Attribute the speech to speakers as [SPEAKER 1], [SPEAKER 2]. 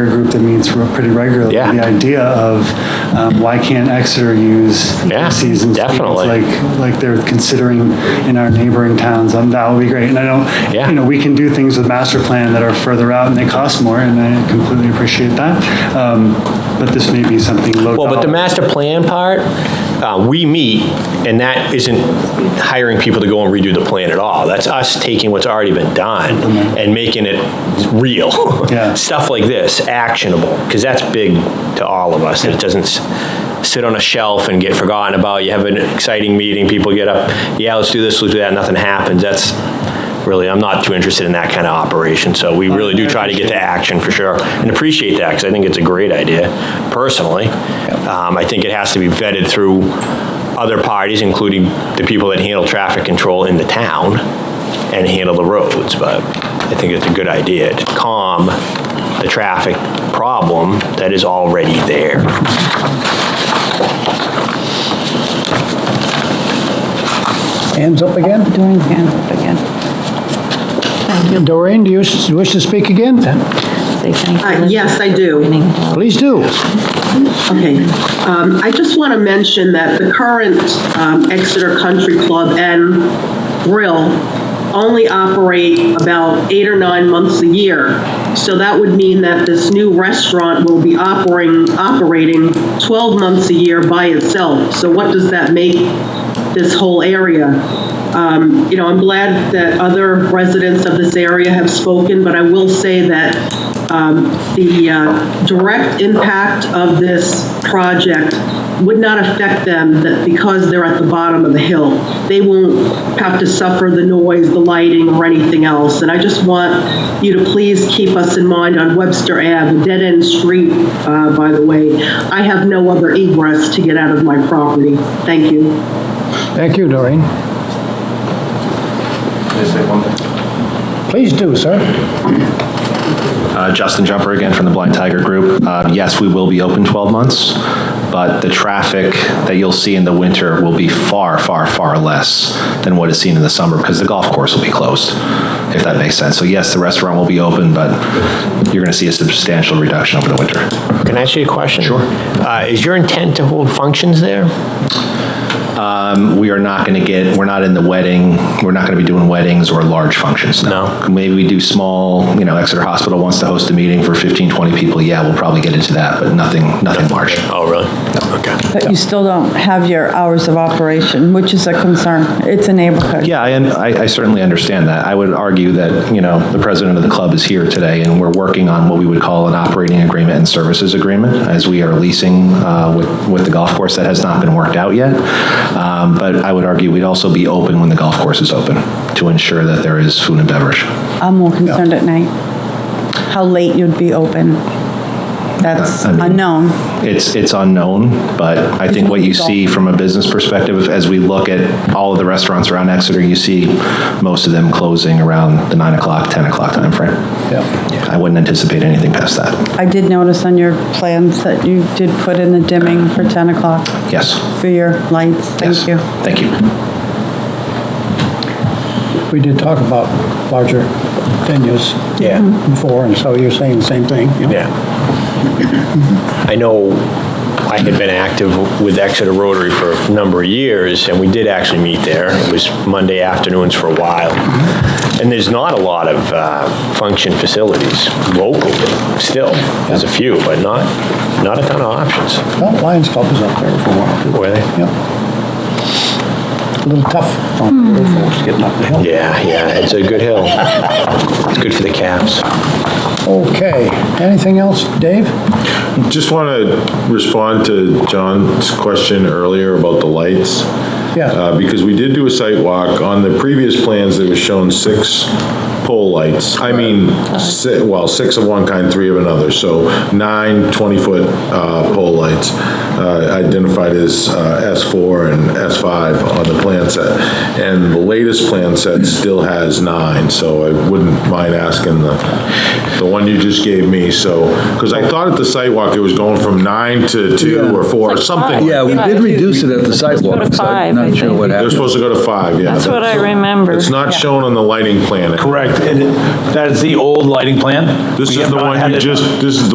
[SPEAKER 1] Hampton meets re- pretty regularly.
[SPEAKER 2] Yeah.
[SPEAKER 1] The idea of um, why can't Exeter use
[SPEAKER 2] Yeah,
[SPEAKER 1] seasons?
[SPEAKER 2] definitely.
[SPEAKER 1] Like, like they're considering in our neighboring towns, um, that would be great. And I
[SPEAKER 2] Yeah.
[SPEAKER 1] don't, you know, we can do things with master plan that are further out and they cost more, and I completely appreciate that. Um, But this may be something low.
[SPEAKER 2] Well, but the
[SPEAKER 1] dollar.
[SPEAKER 2] master plan part, uh, we meet, and that isn't hiring people to go and redo the plan at all. That's us taking what's already been done and making it real.
[SPEAKER 1] Yeah.
[SPEAKER 2] Stuff like this, actionable, because that's big to all of us. It doesn't s- sit on a shelf and get forgotten about. You have an exciting meeting, people get up, yeah, let's do this, let's do that, nothing happens. That's really, I'm not too interested in that kind of operation, so we really do try to get to action for sure, and appreciate that, because I think it's a great idea, personally. Um, I think it has to be vetted through other parties, including the people that handle traffic control in the town and handle the roads, but I think it's a good idea to calm the traffic problem that is already there.
[SPEAKER 3] Hands up again.
[SPEAKER 4] Doing hand up again. Thank you.
[SPEAKER 3] Doreen, do you s- wish to speak again?
[SPEAKER 4] Say thank you.
[SPEAKER 5] Uh, Yes, I do.
[SPEAKER 3] Please do.
[SPEAKER 5] Okay. Um, I just want to mention that the current um, Exeter Country Club and Grill only operate about eight or nine months a year. So that would mean that this new restaurant will be operating, operating 12 months a year by itself. So what does that make this whole area? Um, You know, I'm glad that other residents of this area have spoken, but I will say that um, the uh, direct impact of this project would not affect them that- because they're at the bottom of the hill. They won't have to suffer the noise, the lighting, or anything else. And I just want you to please keep us in mind on Webster Ave, a dead-end street, uh, by the way. I have no other egress to get out of my property. Thank you.
[SPEAKER 3] Thank you, Doreen. Please do, sir.
[SPEAKER 6] Uh, Justin Jumper again from the Blind Tiger Group. Uh, Yes, we will be open 12 months, but the traffic that you'll see in the winter will be far, far, far less than what is seen in the summer because the golf course will be closed, if that makes sense. So yes, the restaurant will be open, but you're going to see a substantial reduction over the winter.
[SPEAKER 2] Can I ask you a question? Sure. Is your intent to hold functions there?
[SPEAKER 6] We are not going to get, we're not in the wedding, we're not going to be doing weddings or large functions, no.
[SPEAKER 2] No.
[SPEAKER 6] Maybe we do small, you know, Exeter Hospital wants to host a meeting for 15, 20 people, yeah, we'll probably get into that, but nothing, nothing large.
[SPEAKER 2] Oh, really? Okay.
[SPEAKER 4] But you still don't have your hours of operation, which is a concern. It's a neighborhood.
[SPEAKER 6] Yeah, I, I I certainly understand that. I would argue that, you know, the president of the club is here today, and we're working on what we would call an operating agreement and services agreement, as we are leasing uh, with, with the golf course. That has not been worked out yet. Um, But I would argue we'd also be open when the golf course is open, to ensure that there is food and beverage.
[SPEAKER 4] I'm more concerned at night, how late you'd be open. That's
[SPEAKER 6] I mean-
[SPEAKER 4] unknown.
[SPEAKER 6] It's, it's unknown, but I think what you see from a business perspective, as we look at all of the restaurants around Exeter, you see most of them closing around the 9 o'clock, 10 o'clock timeframe. Yeah, I wouldn't anticipate anything past that.
[SPEAKER 4] I did notice on your plans that you did put in the dimming for 10 o'clock
[SPEAKER 6] Yes.
[SPEAKER 4] for your lights.
[SPEAKER 6] Yes.
[SPEAKER 4] Thank you.
[SPEAKER 6] Thank you.
[SPEAKER 3] We did talk about larger venues
[SPEAKER 2] Yeah.
[SPEAKER 3] before, and so you're saying the same thing. you know?
[SPEAKER 2] Yeah. I know I had been active with Exeter Rotary for a number of years, and we did actually meet there. It was Monday afternoons for a while. And there's not a lot of uh, function facilities locally, still. There's a few, but not, not a ton of options.
[SPEAKER 3] Well, Lions Club was up there for a while.
[SPEAKER 2] Were they?
[SPEAKER 3] Yep. A little tough on the folks getting up the hill.
[SPEAKER 2] Yeah, yeah, it's a good hill. It's good for the calves.
[SPEAKER 3] Okay. Anything else, Dave?
[SPEAKER 7] Just want to respond to John's question earlier about the lights.
[SPEAKER 3] Yeah.
[SPEAKER 7] Uh, Because we did do a site walk. On the previous plans, there was shown six pole lights. I mean, si- well, six of one kind, three of another, so nine 20-foot uh, pole lights uh, identified as uh, S4 and S5 on the plan set. And the latest plan set still has nine, so I wouldn't mind asking the the one you just gave me, so, because I thought at the sidewalk it was going from nine to two or four, or something.
[SPEAKER 8] Yeah, we did reduce it at the sidewalk.
[SPEAKER 9] Let's go to
[SPEAKER 8] I'm
[SPEAKER 9] five, I
[SPEAKER 8] Not sure
[SPEAKER 9] think.
[SPEAKER 8] what
[SPEAKER 7] They're
[SPEAKER 8] happened.
[SPEAKER 7] supposed to go to five, yeah.
[SPEAKER 9] That's what I remember.
[SPEAKER 7] It's not shown on the lighting plan.
[SPEAKER 10] Correct. And it- That is the old lighting plan?
[SPEAKER 7] This
[SPEAKER 10] We
[SPEAKER 7] is
[SPEAKER 10] have
[SPEAKER 7] the
[SPEAKER 10] not
[SPEAKER 7] one
[SPEAKER 10] had
[SPEAKER 7] you
[SPEAKER 10] it-
[SPEAKER 7] just, this is the